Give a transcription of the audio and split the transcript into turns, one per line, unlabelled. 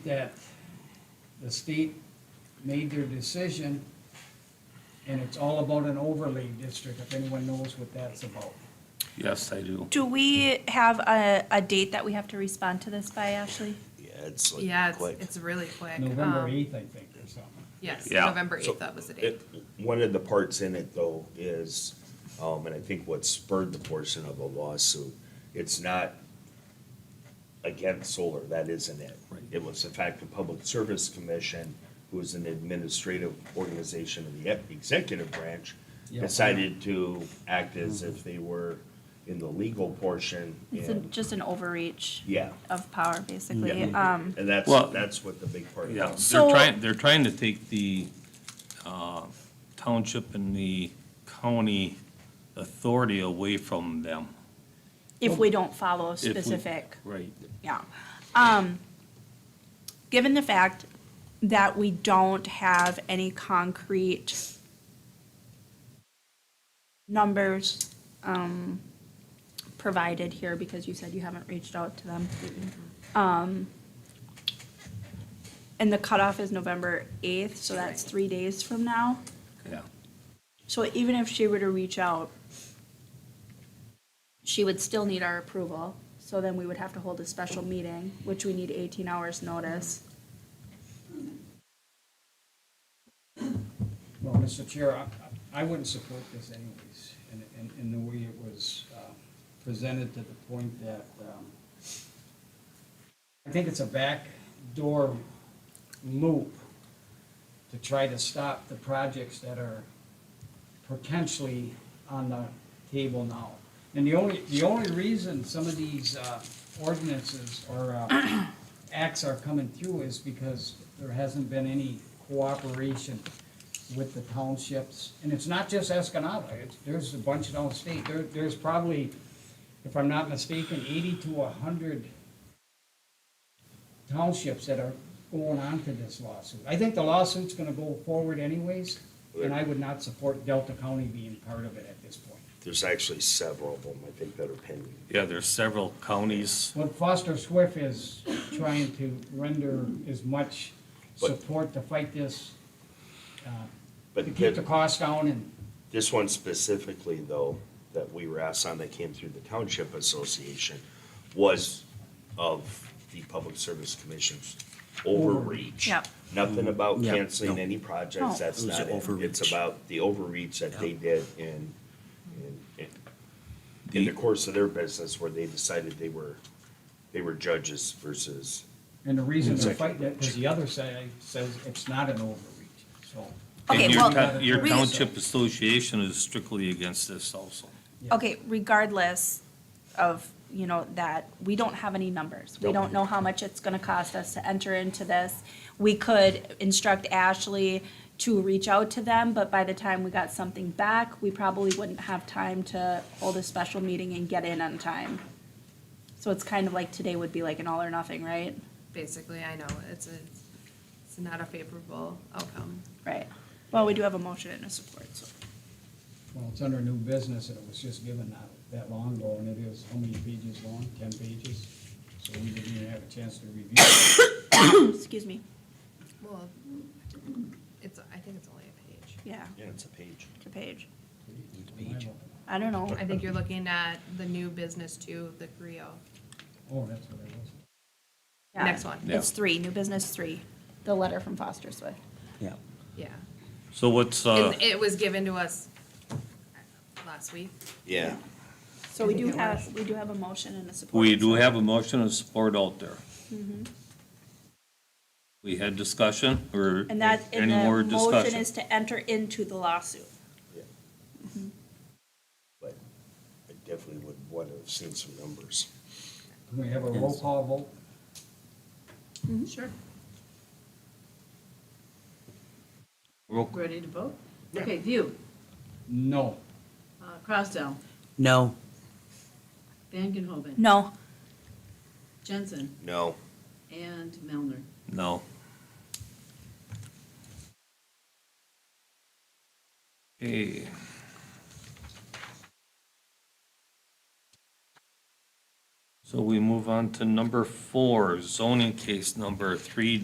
that the state made their decision, and it's all about an overlay district, if anyone knows what that's about.
Yes, I do.
Do we have a, a date that we have to respond to this by, Ashley?
Yeah, it's like
Yeah,
quick.
it's, it's really quick.
November
Um,
eighth, I think, or something.
Yes,
Yeah.
November
So,
eighth, that was the date.
it- One of the parts in it though is, um, and I think what spurred the portion of the lawsuit, it's not against solar, that isn't it.
Right.
It was the fact the Public Service Commission, who is an administrative organization of the ep- executive branch,
Yeah.
decided to act as
Mm-hmm.
if they were in the legal portion
It's a-
and,
just an overreach
yeah.
of power, basically.
yeah.
Um,
And that's,
Well-
that's what the big part of
Yeah,
it.
they're
So-
trying, they're trying to take the uh, township and the county authority away from them.
If we don't follow
if we-
specific,
Right.
yeah. Um, Given the fact that we don't have any concrete numbers um, provided here, because you said you haven't reached out to them. Um, And the cutoff is November 8th, so that's three days from now.
Yeah,
So even if she were to reach out, she would still need our approval. So then we would have to hold a special meeting, which we need eighteen hours notice.
Well, Mr. Chair, I, I wouldn't support this anyways, in, in, in the way it was, uh, presented to the point that, um, I think it's a backdoor loop to try to stop the projects that are potentially on the table now. And the only, the only reason some of these, uh, ordinances or, uh, acts are coming through is because there hasn't been any cooperation with the townships. And it's not just Escanaba, it's, there's a bunch of downstate, there, there's probably, if I'm not mistaken, eighty to a hundred townships that are going on to this lawsuit. I think the lawsuit's gonna go forward anyways, and I would not support Delta County being part of it at this point.
There's actually several of them, I think, that are pending.
yeah, there's several counties,
What Foster Swift is trying to render as much
But-
support to fight this,
But
to keep the
that-
costs down and,
This one specifically, though, that we were asked on that came through the Township Association was of the Public Service Commission's overreach.
Yep.
Nothing about
Yeah,
canceling
no.
any
No.
projects, that's
It was
not it. It's
overreach.
about the overreach that they did in, in, in- in the
The-
course of their business where they decided they were, they were judges versus,
and the reason they're
Exactly.
fighting it, because the other side says it's not an overreach, so.
Okay,
and your
well,
town- your
we-
township association is strictly against this also.
yeah.
Okay, regardless of, you know, that, we don't have any numbers. We don't know how much it's gonna cost us to enter into this. We could instruct Ashley to reach out to them, but by the time we got something back, we probably wouldn't have time to hold a special meeting and get in on time. So it's kind of like today would be like an all or nothing, right?
Basically, I know, it's a, it's not a favorable outcome.
Right. Well, we do have a motion and a support, so.
Well, it's under new business, and it was just given not that long ago, and it is, how many pages long? Ten pages? So we didn't even have a chance to review it.
Excuse me,
Well, it's, I think it's only a page.
yeah,
yeah, it's a page.
it's a page.
Page.
I don't know.
I think you're looking at the new business too, the Creo.
Oh, that's what it was.
Yeah.
Next one.
Yeah.
It's three, new business three, the letter from Foster Swift.
Yeah.
Yeah.
So what's, uh,
And it was given to us last week.
Yeah.
So we do have, we do have a motion and a support.
we do have a motion of support out there.
Mm-hmm.
We had discussion, or
And that, and
any more
the motion
discussion?
is to enter into the lawsuit.
Yeah. But I definitely would want to have seen some numbers.
Can we have a roll call vote?
Sure.
Roll call.
Ready to vote? Okay, View,
No.
uh, Crosstown,
No.
Van Genhoven,
No,
Jensen,
No.
and Melner.
No. Okay. So we move on to number four, zoning case number three